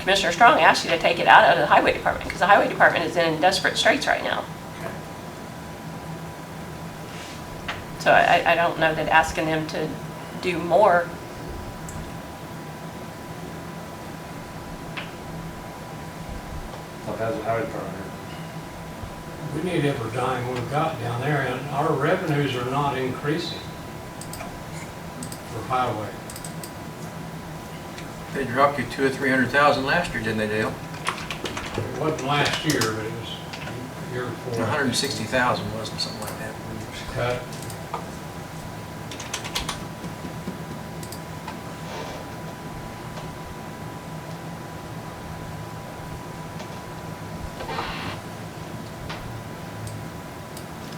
Commissioner Strong asked you to take it out of the highway department, because the highway department is in desperate straits right now. So I, I- I don't know that asking them to do more. Well, that's the highway department. We need every dime we've got down there, and our revenues are not increasing for highway. They dropped you two or three hundred thousand last year, didn't they, Dale? It wasn't last year, but it was the year before. A hundred and sixty thousand, wasn't it, something like that? Cut.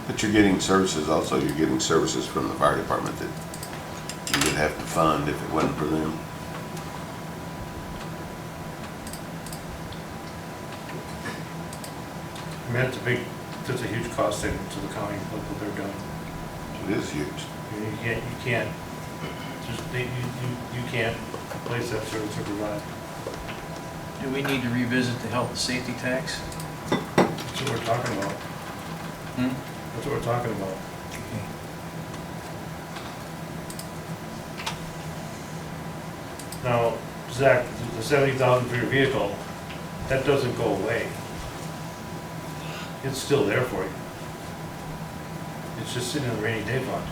But you're getting services also, you're getting services from the fire department that you would have to fund if it wasn't for them. I mean, that's a big, that's a huge cost saving to the county, look what they're doing. It is huge. I mean, You can't, you can't, just, they- you, you, you can't replace that service or provide. Do we need to revisit the health and safety tax? That's what we're talking about. Hmm? That's what we're talking about. Now, Zach, the seventy thousand for your vehicle, that doesn't go away. It's still there for you. It's just sitting in the rainy day fund.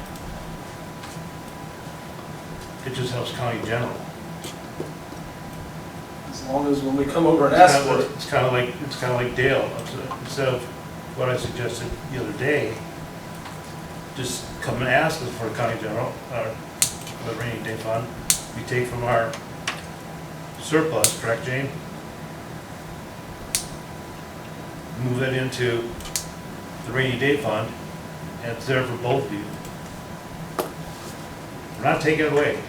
It just helps county general. As long as when we come over and ask for it, It's kind of like, it's kind of like Dale, It's- instead of what I suggested the other day, just come and ask us for a county general, or the rainy day fund, we take from our surplus, correct, Jane? Move it into the rainy day fund, and it's there for both of you. We're not taking it away.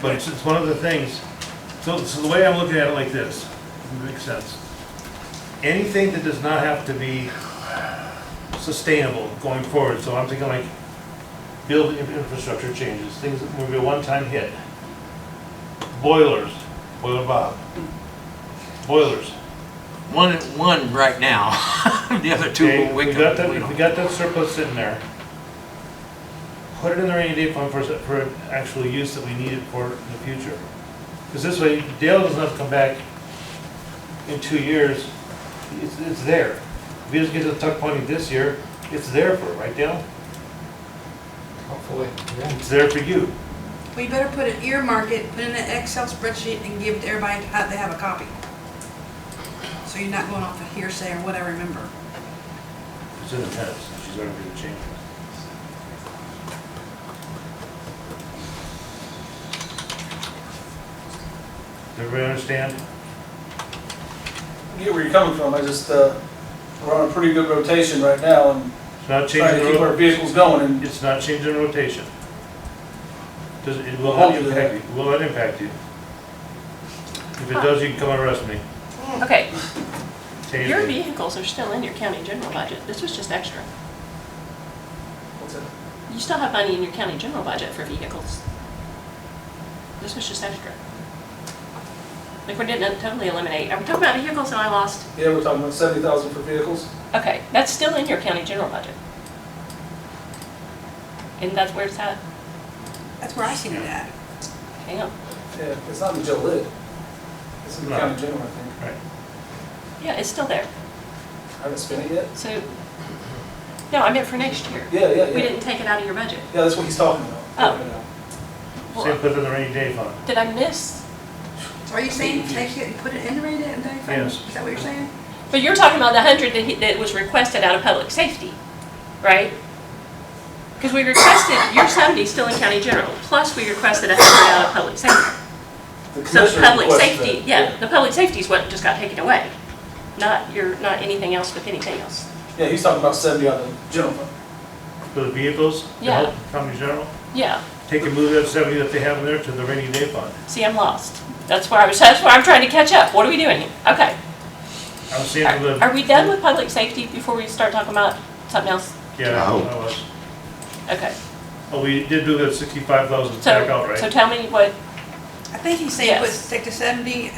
But it's, it's one of the things, so, so the way I'm looking at it like this, if it makes sense. Anything that does not have to be sustainable going forward, so I'm thinking like building in- infrastructure changes, things that will be a one-time hit. Boilers, boiler Bob, boilers. One, one right now, the other two Okay, will we wait. got that, we got that surplus sitting there. Put it in the rainy day fund for, for actual use that we need it for in the future. Because this way, Dale doesn't have to come back in two years, it's, it's there. If he doesn't get to the tuck pointing this year, it's there for, right Dale? Hopefully, yeah. It's there for you. We better put an earmark it, put it in an Excel spreadsheet and give it to everybody to have, they have a copy. So you're not going off of hearsay or what I remember. It's in the minutes, and she's already made the changes. Does everybody understand? I get where you're coming from, I just, uh, we're on a pretty good rotation right now and It's not trying changing to the keep road. our vehicles going and It's not changing rotation. Does, it will not Hopefully. impact you, will not impact you. If it does, you can come and arrest me. Okay, Change your it. vehicles are still in your county general budget. This was just extra. What's that? You still have money in your county general budget for vehicles. This was just extra. Like, we didn't totally eliminate, are we talking about vehicles that I lost? Yeah, we're talking about seventy thousand for vehicles. Okay, that's still in your county general budget. And that's where it's at? That's where I seen it at. Hang on. Yeah, it's not in Joe Lid. It's in the No. county general, I think. Right. Yeah, it's still there. I haven't spent it yet. So, no, I meant for next year. Yeah, yeah, We yeah. didn't take it out of your budget. Yeah, that's what he's talking about. Oh. You know. uh, Same put it in the rainy day fund. Did I miss? So are you saying take it and put it in the rainy day fund? Yes. Is that what you're saying? But you're talking about the hundred that, he- that was requested out of public safety, right? Because we requested, your seventy still in county general, plus we requested a hundred out of public safety. The So commissioner the public requested safety, that. yeah, the public safety is what just got taken away, not your, not anything else with anything else. Yeah, he's talking about seventy on the general fund. For the vehicles, to Yeah. help county general, Yeah, take and move that seventy that they have in there to the rainy day fund. see, I'm lost. That's where I was, that's where I'm trying to catch up. What are we doing here? Okay. I'm seeing Are the. are we done with public safety before we start talking about something else? Yeah, I No. was. Okay. Oh, we did do that sixty-five thousand So, back out, right? so tell me what I think he's saying put, Yes. take the seventy